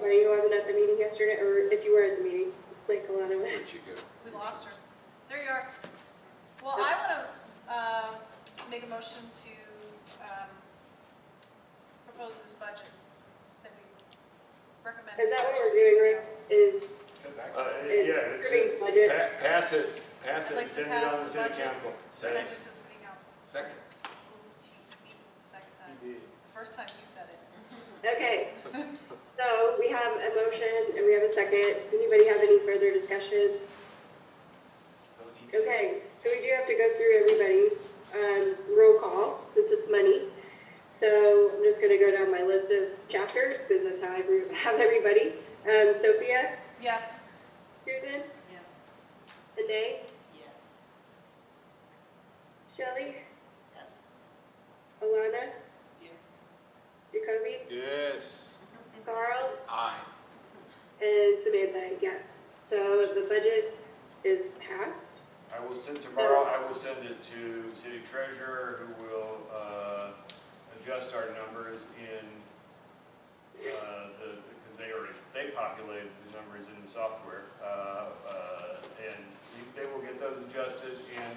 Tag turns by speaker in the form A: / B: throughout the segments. A: why you wasn't at the meeting yesterday, or if you were at the meeting, like Alana was.
B: Where'd you go?
C: We lost her. There you are. Well, I want to make a motion to um, propose this budget that we recommend.
A: Is that what we're doing, Rick? Is,
D: Uh,
A: is
D: Yeah, it's,
A: approving budget?
B: Pa- Pass it, pass
C: I'd
B: it,
C: like
B: and send
C: to
B: it
C: pass
B: on to
C: the
B: city
C: budget.
B: council.
C: Send it to the city council.
D: Second.
C: The Second time. The first time you said it.
A: Okay. So we have a motion and we have a second. Does anybody have any further discussion? Okay, so we do have to go through everybody, um, roll call, since it's money. So I'm just gonna go down my list of chapters, because that's how I re- have everybody. Um, Sophia,
C: Yes.
A: Susan,
C: Yes.
A: Renee,
C: Yes.
A: Shelley,
C: Yes.
A: Alana,
C: Yes.
A: Jacoby,
B: Yes,
A: Carl,
B: aye.
A: and Samantha, yes. So the budget is passed.
D: I will send tomorrow, I will send it to city treasurer, who will uh, adjust our numbers in uh, the, because they already, they populated the numbers in the software. uh, uh, And you- they will get those adjusted, and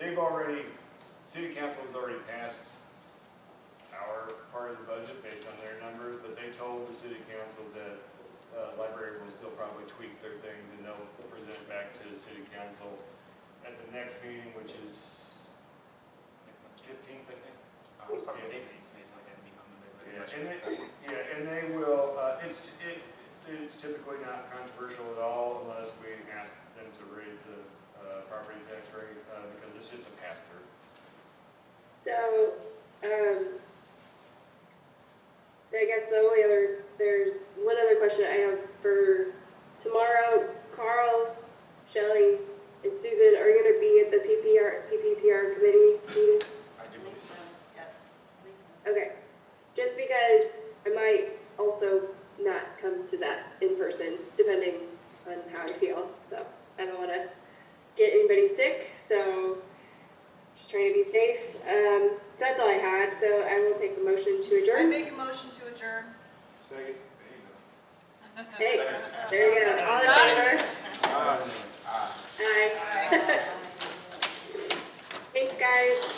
D: they've already, city council has already passed our part of the budget based on their numbers, but they told the city council that uh, library will still probably tweak their things, and they'll present it back to the city council at the next meeting, which is fifteenth, I think.
E: I was talking to David, he's amazing, like, I mean, I'm a bit-
D: Yeah,
E: I'm
D: and
E: sure it's
D: they,
E: that.
D: yeah, and they will, uh, it's, it, it's typically not controversial at all unless we ask them to raise the, uh, property tax rate, uh, because it's just a pass-through.
A: So, um, I guess the only other, there's one other question I have for tomorrow. Carl, Shelley, and Susan are going to be at the PPR, PPPR committee meeting?
E: I do believe so.
C: Yes.
A: Okay, just because I might also not come to that in person, depending on how I feel, so I don't wanna get anybody sick, so just trying to be safe. Um, so that's all I had, so I will take the motion to
C: I
A: adjourn.
C: make a motion to adjourn.
B: Second.
A: Hey, there you go, all in favor?
E: Ah, ah.
A: Aye. Thanks, guys.